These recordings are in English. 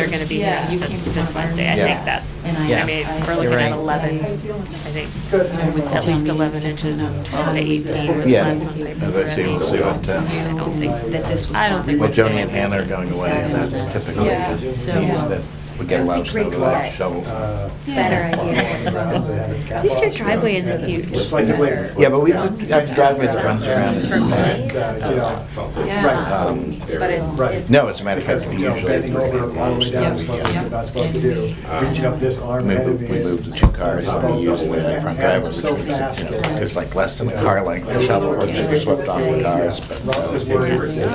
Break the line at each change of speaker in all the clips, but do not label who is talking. are going to be here
Yeah, you came to
this
confirm.
Wednesday. I
Yeah.
think that's,
And
I-
I mean,
I-
we're looking
You're
at
right.
11, I think.
Good.
At least 11 inches, 12 to 18 was
Yeah.
last month. I
As I see, we'll see what, uh,
I don't think that this was.
I don't think
Well,
we'll
Joni
say
and Hannah are going away, and that's typically
Yeah,
the things
so-
that we get a lot of snow, a
uh,
lot of shovels.
Uh,
Better idea.
At least your driveway isn't huge.
Yeah, but we have the driveway that runs
For
around.
me?
Yeah.
Um,
But it's-
Right.
it's-
No, as a matter of fact,
Because,
we
you know, bending over all the way
usually.
down is what you're not supposed to do. Reaching up this arm
We
ahead of
moved,
me
we
is.
moved the two cars, and we used it in the front driveway, which
So
was,
fast.
you know, there's like less than a car length, the shovel would have swept off the cars,
Ross was
but.
worried.
uh,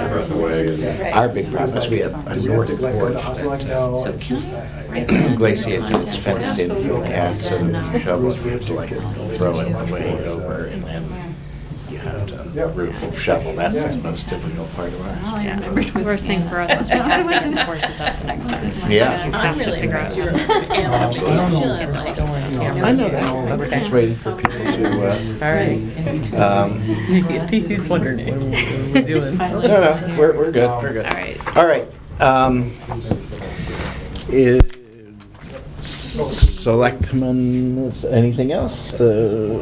Our big problem is we have a
Did we have to
northern
like go to the
porch
hospital? Like,
that uh,
No,
So
it's
can
just, I- I-
I write down
glaciers,
your
it's fenced in,
contact
from cast, so
and,
the
uh,
shovel, you have to like throw it way over, and then you have to roof shovel, that's the most difficult part of ours.
All I
Yeah.
remembered was
Worst thing for us is we
Hannah's.
have to get the horses up the next time.
Yeah.
We have to
I'm really
figure out-
impressed you were
animal
I know that, I'm just waiting for people to, uh,
All right.
Um,
He's wondering, what are we doing?
no, no, we're, we're good, we're good.
All right.
All right, um, is, selectmen, anything else? Uh,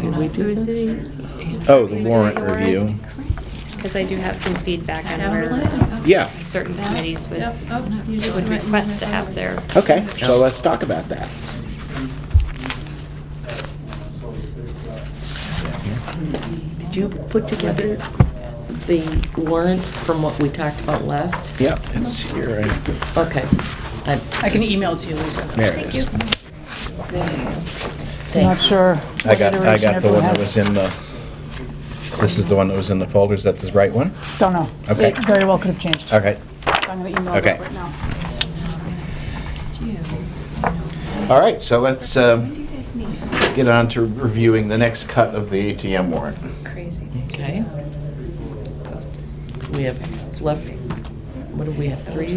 Did we do this?
Oh, the warrant review.
Because I do have some feedback on
Hour
where
eleven.
Yeah,
certain
Nope.
committees would,
Nope. Oh, no. You just
would
went-
request to have their.
okay, so let's talk about that.
Did you put together the warrant from what we talked about last?
Yep, it's here, I-
Okay. I-
I can email it to you, Lisa.
there it is.
Not
Thanks.
sure.
I got, I got the one that
Iteration
was in the, this is the one that was in the folders, that's the right one?
of- Don't know.
Okay.
It very well could have changed.
Okay,
I'm going to email
Okay.
it right now.
all right, so let's um, get on to reviewing the next cut of the ATM warrant.
Crazy.
Okay. We have left, what do we have, three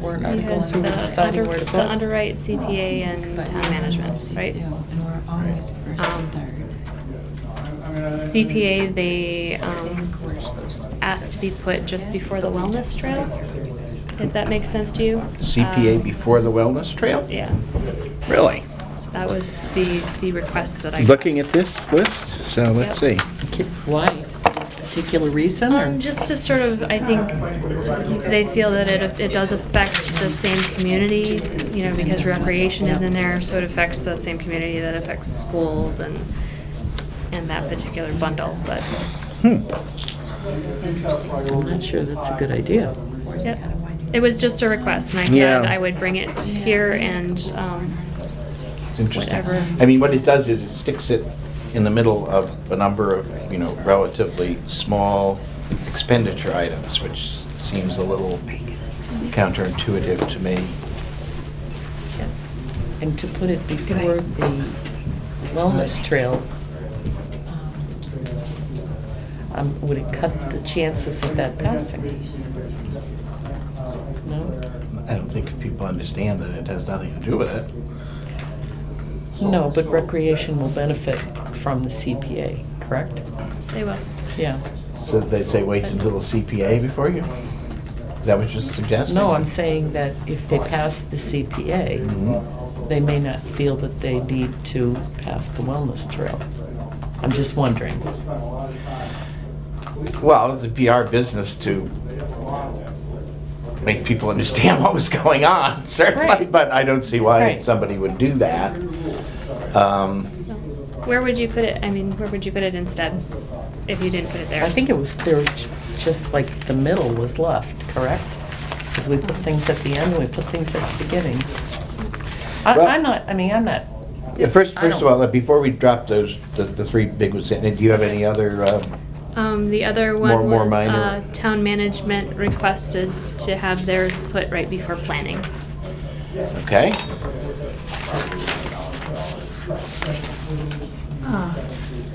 warrant
We had
articles? So we're
the
uh,
deciding
under-
where to put?
The underwrite, CPA, and town management, right?
And we're always first
Um,
and third.
CPA, they um, asked to be put just before the wellness trail, if that makes sense to you.
CPA
Um,
before the wellness trail?
Yeah,
Really?
that was the, the request that I got.
Looking at this list, so let's see.
Yep.
Ki- Why? Particular reason or?
Um, just to sort of, I think, they feel that it, it does affect the same community, you know, because recreation is in there, so it affects the same community that affects schools and, and that particular bundle, but,
Hmm.
I'm not sure that's a good idea.
yep. It was just a request, and I said
Yeah.
I would bring it here and, um,
It's interesting.
Whatever.
I mean, what it does is it sticks it in the middle of a number of, you know, relatively small expenditure items, which seems a little counterintuitive to me.
And to put it before the wellness trail, um, would it cut the chances of that passing? No?
I don't think people understand that it has nothing to do with it.
No, but recreation will benefit from the CPA, correct?
they will.
Yeah.
So they say wait until the CPA before you? Is that what you're suggesting?
No, I'm saying that if they pass the CPA,
Mhm.
they may not feel that they need to pass the wellness trail. I'm just wondering.
Well, it's a PR business to make people understand what was going on, certainly,
Right.
but I don't see why
Right.
somebody would do that. Um,
Where would you put it, I mean, where would you put it instead, if you didn't put it there?
I think it was, there was ju- just like the middle was left, correct? Because we put things at the end, we put things at the beginning. I,
Well-
I'm not, I mean, I'm not,
Yeah, first,
I
first of
don't-
all, uh, before we drop those, the, the three big ones, in, do you have any other, uh,
Um, the other
More-
one
more
was,
minor.
uh, town management requested to have theirs put right before planning.
okay?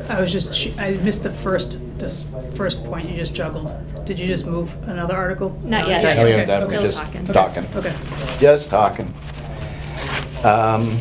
I was just, ch- I missed the first, this first point you just juggled. Did you just move another article?
Not yet.
Oh, yeah,
Okay,
that-
okay.
Still
just
talking.
Talking,
Okay.
just talking. Um,